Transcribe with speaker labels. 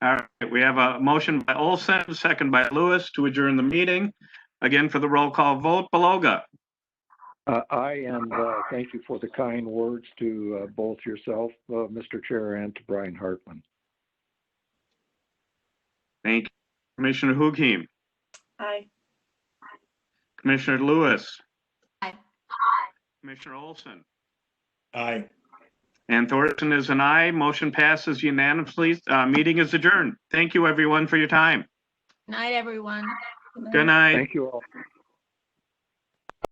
Speaker 1: All right, we have a motion by Olson, second by Lewis to adjourn the meeting. Again, for the roll call vote, Beloga.
Speaker 2: Uh, I and uh, thank you for the kind words to uh, both yourself, uh, Mr. Chair, and to Brian Hartman.
Speaker 1: Thank you. Commissioner Hukim,
Speaker 3: Aye.
Speaker 1: Commissioner Lewis.
Speaker 3: Aye.
Speaker 1: Commissioner Olson.
Speaker 4: Aye.
Speaker 1: And Thorson is an aye. Motion passes unanimously. Uh, meeting is adjourned. Thank you, everyone, for your time.
Speaker 3: Night, everyone.
Speaker 1: Good night.
Speaker 2: Thank you all.